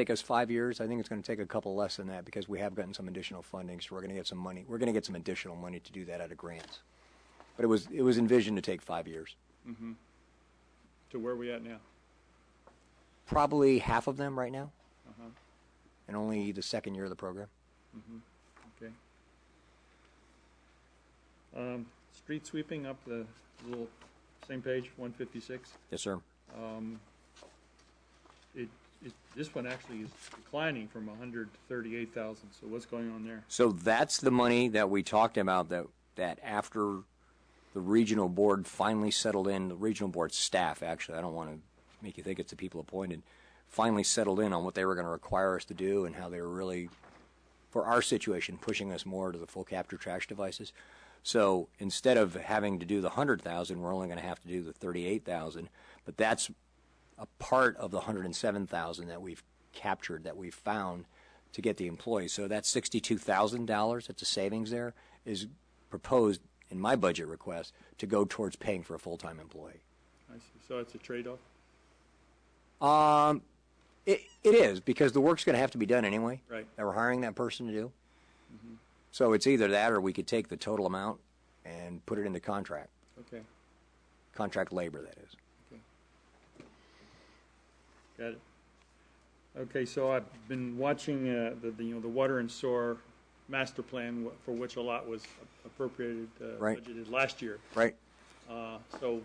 take us five years. I think it's going to take a couple less than that because we have gotten some additional funding. So we're going to get some money. We're going to get some additional money to do that out of grants. But it was it was envisioned to take five years. to where we at now? Probably half of them right now, Uh-huh. and only the second year of the program. Okay. Um, street sweeping up the little, same page, one fifty-six. Yes, sir. It, it, this one actually is declining from hundred to thirty-eight thousand, so what's going on there? So that's the money that we talked about that, that after the regional board finally settled in, the regional board staff, actually, I don't want to make you think it's the people appointed, finally settled in on what they were going to require us to do and how they were really, for our situation, pushing us more to the full capture trash devices. So instead of having to do the hundred thousand, we're only going to have to do the thirty-eight thousand. But that's a part of the 107,000 that we've captured, that we've found to get the employees. So that $62,000, that's a savings there, is proposed in my budget request to go towards paying for a full-time employee. I see, so it's a trade-off? It, it is, because the work's going to have to be done anyway. Right. Mm-hmm. That we're hiring that person to do. So it's either that or we could take the total amount and put it into contract, Okay, contract labor, that is. got it. Okay, so I've been watching, uh, the, the, you know, the water and sewer master plan wh- for which a lot was appropriated, uh, Right. budgeted last year. Right? Uh, so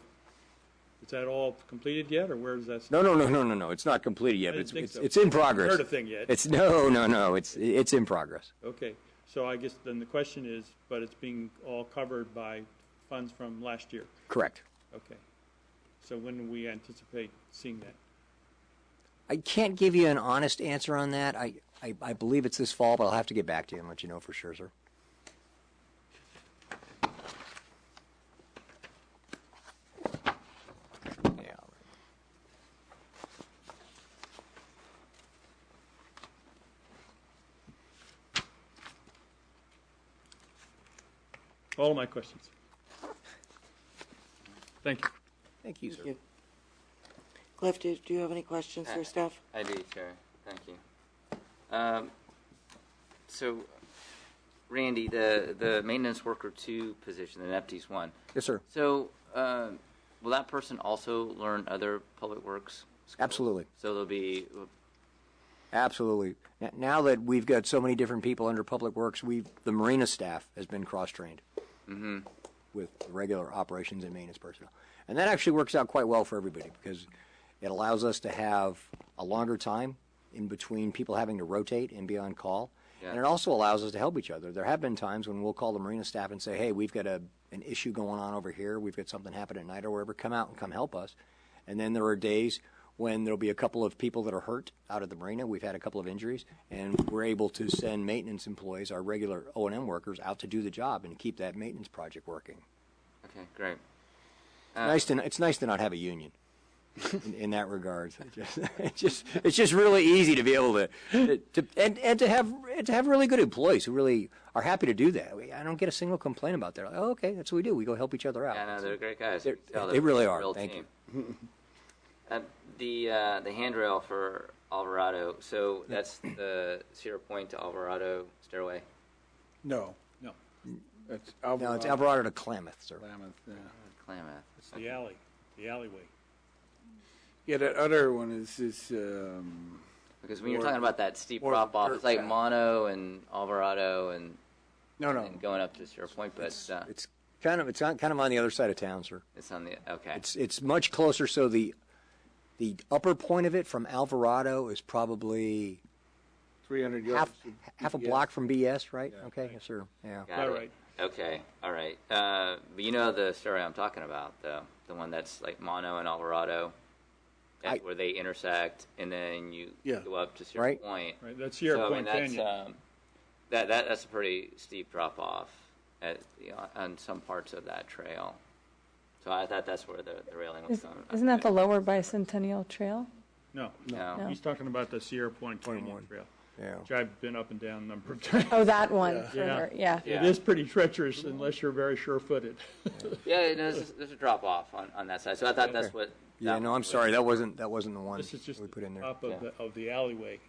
is that all completed yet, or where does that? No, no, no, no, no, no. It's not completed yet, I but didn't it's, it's, think so. it's in progress. Heard a thing yet. It's, no, no, no. It's, it's in progress. Okay, so I guess then the question is, but it's being all covered by funds from last year. Correct. Okay. So when do we anticipate seeing that? I can't give you an honest answer on that. I, I, I believe it's this fall, but I'll have to get back to you and let you know for sure, sir. Yeah. All my questions. Thank you. Thank you, sir. Thank you. Cliff, do do you have any questions for staff? I do, Chair. Thank you. Um, so, Randy, the, the maintenance worker two position, the E NEPTES one. Yes, sir. So, um, will that person also learn other public works? skills? Absolutely. So they'll be, Absolutely. N- Now that we've got so many different people under Public Works, we've, the Marina staff has been cross-trained with regular operations and maintenance personnel. And that actually works out quite well for everybody because it allows us to have a longer time in between people having to rotate and be on call. And Yeah. it also allows us to help each other. There have been times when we'll call the Marina staff and say, hey, we've got a, an issue going on over here. We've got something happen at night or wherever. Come out and come help us. And then there are days when there'll be a couple of people that are hurt out at the marina. We've had a couple of injuries, and we're able to send maintenance employees, our regular O and M workers, out to do the job and keep that maintenance project working. okay, great. Uh, Nice to, it's nice to not have a union in, in that regard. It just, it's just, it's just really easy to be able to, to and, and to have and to have really good employees who really are happy to do that. We, I don't get a single complaint about that. Like, oh, okay, that's what we do. We go help each other out. Yeah, no, they're great guys. Oh, They're- You can tell they they're really a are. real Thank team. uh, the uh, the handrail for Alvarado. So that's the Sierra Point to Alvarado stairway. No, No, it's no, Alvarado. it's Alvarado to Klamath, sir. Klamath, yeah. Klamath. it's the alley, the alleyway. Yeah, that other one is, is, um, Because when you're Or- talking about that steep or drop off, dirt it's like track. Mono and Alvarado and, no, no. and going up to Sierra Point, but it's, uh, it's, It's kind of it's on, kind of on the other side of town, sir. on the okay. It's it's much closer. So the the upper point of it from Alvarado is probably Three hundred yards. half of half a BS. block from BS, right? okay, yes, sir. Yeah. Got all it. right. Okay, all right. Uh, but you know the story I'm talking about, though, the one that's like Mono and Alvarado, that, I- where they intersect, and then you Yeah. go up to Sierra Right. Point. Right, that's Sierra so, Point I mean, Canyon. that's, um, that, that that's a pretty steep drop off at you know, on some parts of that trail. So I thought that's where the, the railing was Is- going. Isn't that the Lower Bicentennial Trail? No, No. he's talking about the Sierra Point Canyon Trail, Yeah. which I've been up and down a number of times. Oh, that one further, yeah. It Yeah. is pretty treacherous unless you're very sure-footed. Yeah, it- no, there's, there's a drop off on, on that side. So I thought that's what. Yeah, that no, I'm was. sorry. That wasn't that wasn't the one This is just we put in there. top of Yeah. the, of the alleyway.